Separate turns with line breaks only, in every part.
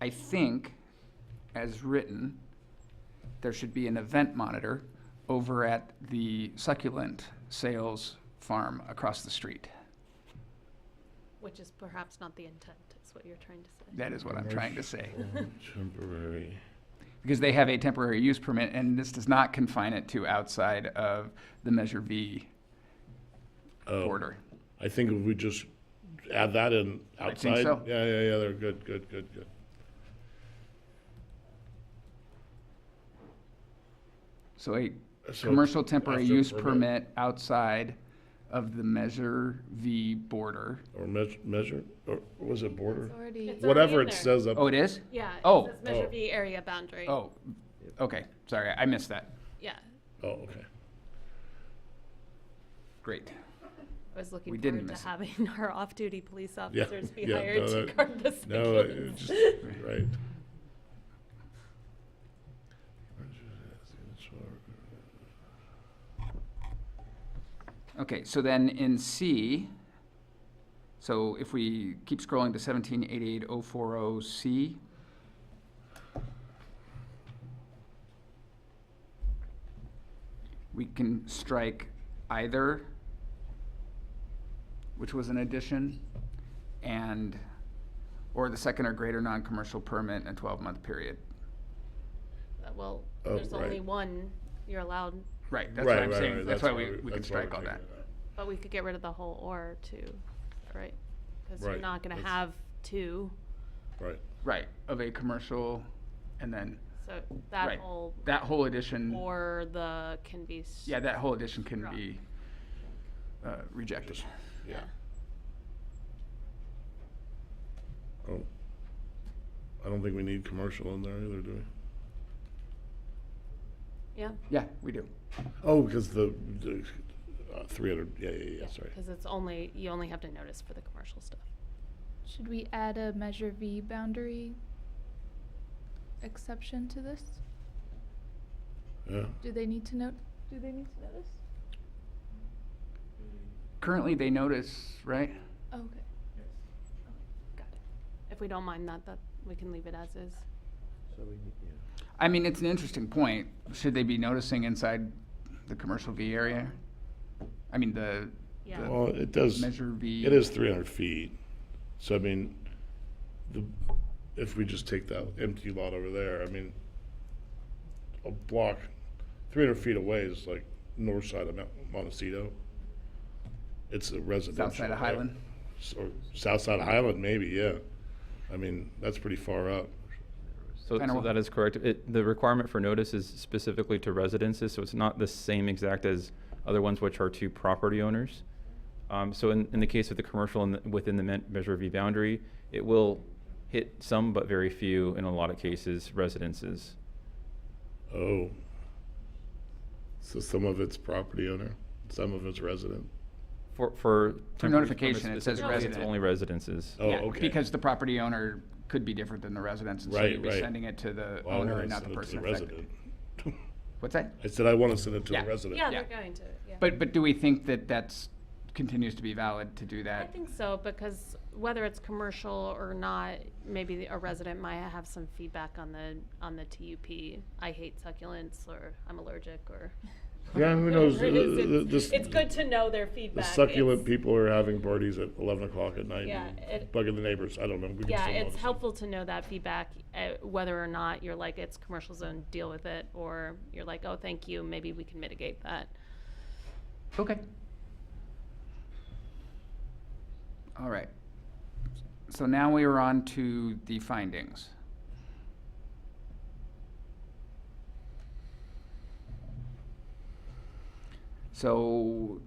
I think, as written, there should be an event monitor over at the succulent sales farm across the street.
Which is perhaps not the intent, is what you're trying to say.
That is what I'm trying to say.
Temporary.
Because they have a temporary use permit, and this does not confine it to outside of the Measure V
Oh,
border.
I think if we just add that in outside.
so.
Yeah, yeah, yeah, they're good, good, good, good.
So a
So,
commercial temporary
after
use
permit.
permit outside of the Measure V border.
Or meas- measure, or was it border?
Already.
It's
Whatever
already
it
in there.
says up.
Oh, it is?
Yeah,
Oh.
it says Measure
Oh.
B area boundary.
Oh, okay, sorry, I missed that.
Yeah,
Oh, okay.
Great.
I was
We
looking
didn't
forward to
miss it.
having our off-duty police officers be
yeah,
hired
no,
to
that-
guard the
No, it
succulents.
it just, right.
Okay, so then in C, so if we keep scrolling to seventeen eighty-eight oh four oh C. We can strike either, which was an addition, and, or the second or greater non-commercial permit in a twelve-month period.
Uh, Well,
Oh,
there's only
right.
one you're allowed,
Right, that's what
Right,
I'm
right,
saying,
right,
that's why we, we can
that's why
strike all
taking
that.
it out.
but we could get rid of the whole or too, right? Because you're
Right,
not gonna
that's-
have two,
Right,
Right, of a commercial, and then,
so
Right.
that whole
that whole addition.
or the can be. s-
Yeah, that whole edition can
Right.
be uh, rejected.
Just- yeah.
Yeah.
I don't, Oh. I don't think we need commercial in there either, do we?
Yeah.
Yeah, we do.
Oh, because the, the, uh, three hundred, yeah, yeah, yeah, sorry.
Because it's only, you only have to notice for the commercial stuff.
Should we add a Measure V boundary exception to this?
Yeah,
Do they need to note, do they need to notice?
Currently, they notice, right?
Oh, Okay.
Got it. If we don't mind that, that, we can leave it as is.
So we, need- yeah.
I mean, it's an interesting point. Should they be noticing inside the commercial V area? I mean, the
Yeah.
well, it does,
Measure V.
it is three hundred feet, so I mean, the, if we just take that empty lot over there, I mean, a block, three hundred feet away is like north side of Mount Montecito. It's a residential.
South side of
area.
Highland.
S- Or south side of Highland, maybe, yeah. I mean, that's pretty far up.
So,
Kinda
so
wha-
that is correct. It, the requirement for notice is specifically to residences, so it's not the same exact as other ones which are to property owners. Um, so in, in the case of the commercial in the, within the men- Measure V boundary, it will hit some but very few, in a lot of cases, residences.
Oh. So some of it's property owner, some of it's resident.
For, for. temporary-
notification, it says
specifically, it's
resident.
Only residences.
Oh,
Yeah,
okay.
Because the property owner could be different than the resident, and so
Right,
you'd be
right.
sending it to the
Well, I
owner
wanna
and not the
send it to
person
resident.
affected. What's that?
I said I want to send it to
Yeah.
the resident.
Yeah,
Yeah.
they're going to, yeah.
But, but do we think that that's, continues to be valid to do
I
that?
think so, because whether it's commercial or not, maybe the- a resident might have some feedback on the, on the TUP. I hate succulents, or I'm allergic, or.
Yeah, who knows?
whatever it is,
The- the-
it's-
this-
It's good to know their
The
feedback.
succulent
It's-
people are having parties at eleven o'clock at night
Yeah,
and
it-
bugging the neighbors. I don't know. We can
Yeah,
still
it's
notice it.
helpful to know that feedback, uh, whether or not you're like, it's commercial zone, deal with it, or you're like, oh, thank you, maybe we can mitigate that.
Okay. All right. So now we are on to the findings. So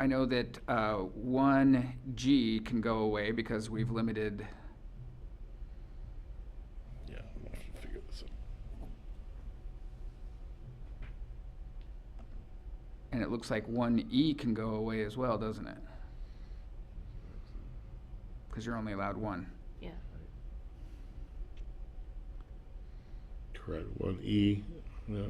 I know that uh, one G can go away because we've limited,
Yeah, I'm gonna have to figure this out.
and it looks like one E can go away as well, doesn't it? Because you're only allowed one.
Yeah,
Correct. One E. Yeah.